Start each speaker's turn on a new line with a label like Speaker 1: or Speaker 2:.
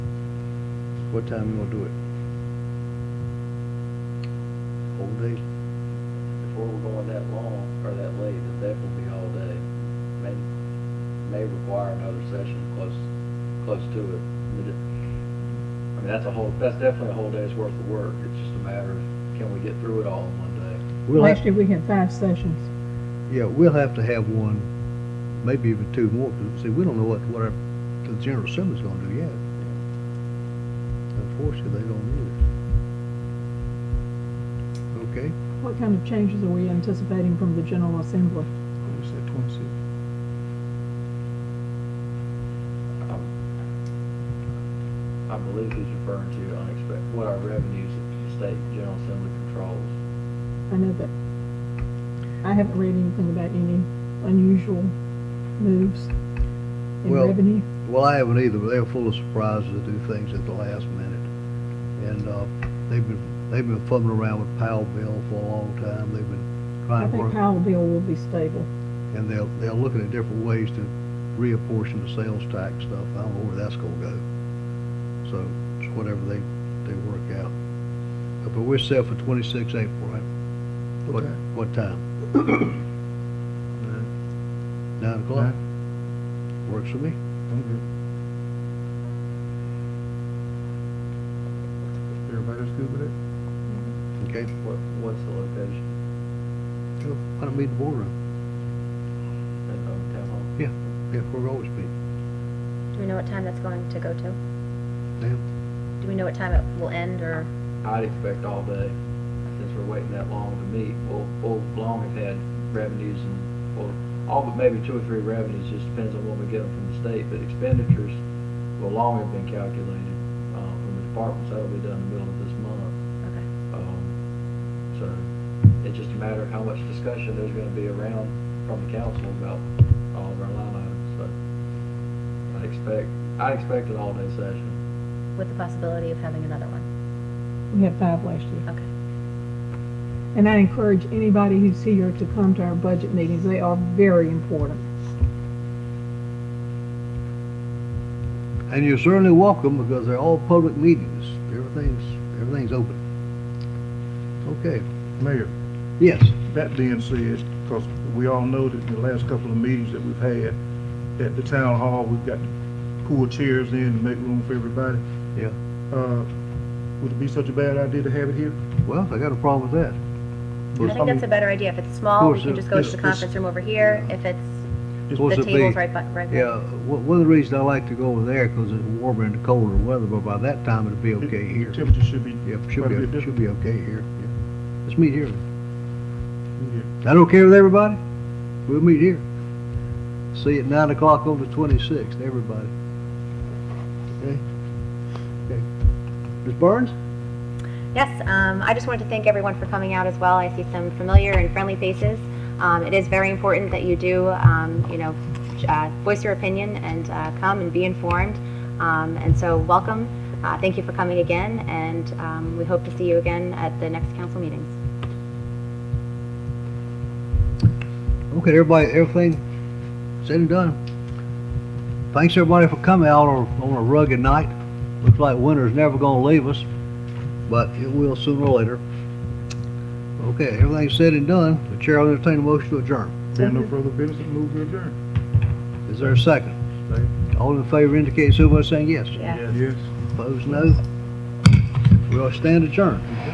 Speaker 1: What time you gonna do it? Whole day?
Speaker 2: Before we're going that long, or that late, it'll definitely be all day. May, may require another session close, close to it. I mean, that's a whole, that's definitely a whole day's worth of work. It's just a matter of, can we get through it all in one day?
Speaker 1: We'll
Speaker 3: Last
Speaker 1: have,
Speaker 3: year, we had five sessions.
Speaker 1: yeah, we'll have to have one, maybe even two more, 'cause see, we don't know what, what our, the general assembly's gonna do yet. Unfortunately, they don't either. Okay?
Speaker 3: What kind of changes are we anticipating from the General Assembly?
Speaker 1: What is that, twenty-six?
Speaker 2: I believe he's referring to unexpected, what our revenues at the state general assembly controls.
Speaker 3: I know that, I haven't read anything about any unusual moves in
Speaker 1: Well-
Speaker 3: revenue.
Speaker 1: Well, I haven't either, but they're full of surprises and do things at the last minute. And, uh, they've been, they've been fumbling around with Powell bill for a long time. They've been
Speaker 3: I
Speaker 1: trying to
Speaker 3: think
Speaker 1: work.
Speaker 3: Powell bill will be stable.
Speaker 1: And they're, they're looking at different ways to reapportion the sales tax stuff. I don't know where that's gonna go. So it's whatever they, they work out. Uh, But we're set for twenty-six April, right? What, what time? Nine o'clock? Works for me.
Speaker 4: I'm good. Everybody's good with it?
Speaker 1: Okay.
Speaker 2: What, what's the location?
Speaker 1: Why don't we meet the boardroom?
Speaker 2: At um, town hall?
Speaker 1: Yeah, we're always meeting.
Speaker 5: Do we know what time that's going to go to?
Speaker 1: Ma'am?
Speaker 5: Do we know what time it will end or?
Speaker 2: I'd expect all day, since we're waiting that long to meet. We'll, we'll long have had revenues and, well, all but maybe two or three revenues, just depends on what we get them from the state, but expenditures will long have been calculated, um, from the departments, that'll be done in the middle of this month.
Speaker 5: Okay.
Speaker 2: Um, so, it's just a matter of how much discussion there's gonna be around from the council about all of our line items, so. I expect, I expect an all-day session.
Speaker 5: With the possibility of having another one?
Speaker 3: We had five last year.
Speaker 5: Okay.
Speaker 3: And I encourage anybody who's here to come to our budget meetings. They are very important.
Speaker 1: And you're certainly welcome because they're all public meetings. Everything's, everything's open. Okay,
Speaker 4: Mayor,
Speaker 1: yes,
Speaker 4: that being said, because we all know that the last couple of meetings that we've had, at the town hall, we've got to pull chairs in to make room for everybody.
Speaker 1: Yeah.
Speaker 4: Uh, would it be such a bad idea to have it here?
Speaker 1: well, I got a problem with that.
Speaker 5: I think that's a better idea. If it's small, we
Speaker 1: course,
Speaker 5: can just go to
Speaker 1: it's-
Speaker 5: the
Speaker 1: it's-
Speaker 5: conference room over here. If it's,
Speaker 1: Of course
Speaker 5: the
Speaker 1: it'd be-
Speaker 5: table's right by, right
Speaker 1: Yeah,
Speaker 5: there.
Speaker 1: one one of the reasons I like to go over there because it's warmer and colder weather, but by that time it'll be okay
Speaker 4: The-
Speaker 1: here.
Speaker 4: The temperature should be.
Speaker 1: Yep,
Speaker 4: quite
Speaker 1: should
Speaker 4: a bit
Speaker 1: be, should
Speaker 4: different.
Speaker 1: be okay here. Yeah. Let's meet here.
Speaker 4: Yeah.
Speaker 1: That okay with everybody? We'll meet here. See you at nine o'clock on the twenty-sixth, everybody. Okay? Okay. Ms. Barnes?
Speaker 5: Yes, um, I just wanted to thank everyone for coming out as well. I see some familiar and friendly faces. Um, it is very important that you do, um, you know, uh, voice your opinion and, uh, come and be informed. Um, and so welcome. Uh, thank you for coming again and, um, we hope to see you again at the next council meetings.
Speaker 1: Okay, everybody, everything said and done. Thanks everybody for coming out on, on a rugged night. Looks like winter's never gonna leave us, but it will sooner or later. Okay, everything said and done, the chair will entertain a motion to adjourn.
Speaker 4: Being no further business, move to adjourn.
Speaker 1: Is there a second? All in favor indicate so by saying yes.
Speaker 5: Yeah.
Speaker 4: Yes.
Speaker 1: Opposed, no. We will stand adjourned.